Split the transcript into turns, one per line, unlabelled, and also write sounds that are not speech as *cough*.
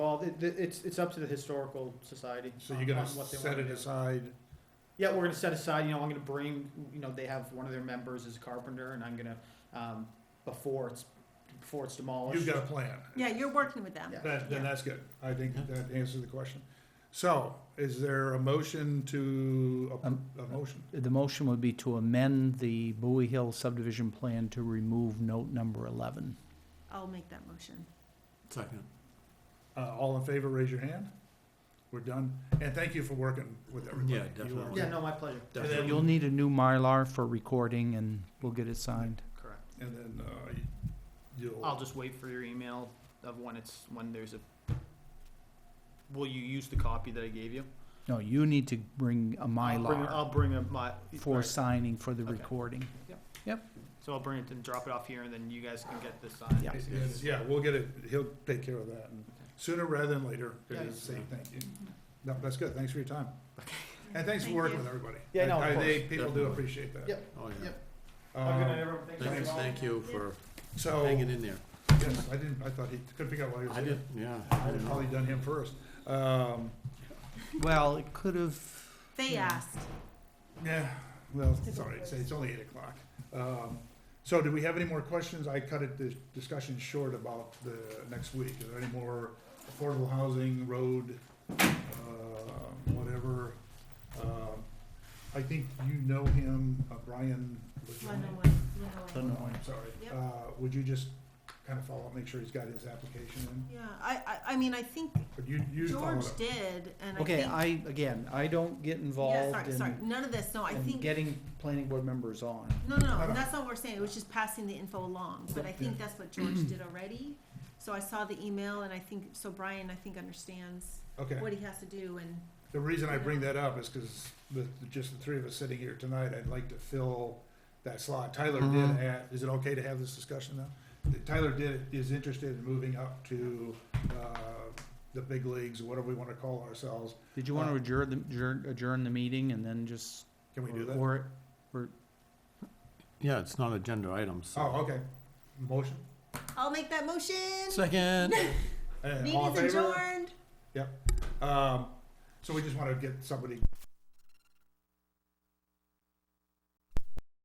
involved. It, it- it's, it's up to the historical society.
So
on-
you're gonna
on what they
set
wanna
it
do.
aside,
Yeah, we're gonna set aside, you know, I'm gonna bring, you know, they have one of their members is a carpenter and I'm gonna, um, before it's, before it's demolished.
you've got a plan.
Yeah, you're working with them.
Oh, Yeah.
That, then
Yeah.
that's good. I think
Yeah.
that answers the question. So, is there a motion to, a,
Um,
a motion?
The motion would be to amend the Bowie Hill subdivision plan to remove note number 11.
I'll make that motion.
Second.
Uh, all in favor, raise your hand. We're done. And thank you for working with everybody.
Yeah,
You are-
definitely.
Yeah, no, my pleasure.
And
Definitely.
then-
You'll need a new Mylar for recording, and we'll get it signed.
Correct.
And then, uh, you'll.
I'll just wait for your email of when it's, when there's a, will you use the copy that I gave you?
No, you need to bring a
I'll bring-
Mylar
I'll bring a, my.
for
right.
signing for the
Okay.
recording.
So I'll bring it and drop it off here and then you guys can get this signed.
Yeah.
It is, Yeah, we'll get it, he'll take care of that, and sooner rather than later,
Yeah.
is say thank you. No, that's good, thanks for your time. And thanks for
Thank
working
you.
with everybody.
Yeah, no, of
I- I- they-
course.
People do
Definitely.
appreciate that.
Yep.
Oh, yeah.
Yep. Have a good night,
Um,
everyone. Thanks for
Thanks,
all.
thank you for
So,
hanging in there.
yes, I didn't, I thought he, couldn't figure out why he was
I
here.
did, yeah. I
I'd
didn't know.
Oh. probably done him first. Um,
Well, it could have,
They asked.
yeah, well, it's all right, it's, it's only eight o'clock. Um, so do we have any more questions? I cut it, the discussion short about the next week. Is there any more affordable housing, road, uh, whatever? Um, I think you know him, uh, Brian
Leno,
Legone.
Leno.
No, I'm sorry.
Yep.
Uh, would you just kind of follow up, make sure he's got his application in?
Yeah, I, I, I mean, I think
But you, you follow
George
up.
did, and I think.
okay, I, again, I don't get
Yeah,
involved
sorry, sorry,
in
none of this, no, I
in
think,
getting planning board members on.
no, no,
I
no,
don't-
that's not what we're saying, it was just passing the info along, but I think that's what George did already. So I saw the email, and I think, so Brian, I think, understands
Okay.
what he has to do, and,
The reason I bring that up is because with just the three of us sitting here tonight, I'd like to fill that slot. Tyler did,
Mhm.
a- is it okay to have this discussion now? Tyler did, is interested in moving up to, uh, the big leagues, whatever we wanna call ourselves.
Did you want
Uh,
to adjourn, the- adjourn, adjourn the meeting and then just?
Can we do that?
Or,
Yeah, it's not agenda items. so-
Oh, okay. Motion?
I'll make that motion.
Second. *laughs*
Uh, all in
Meeting's
favor?
adjourned.
Um, so we just wanna get somebody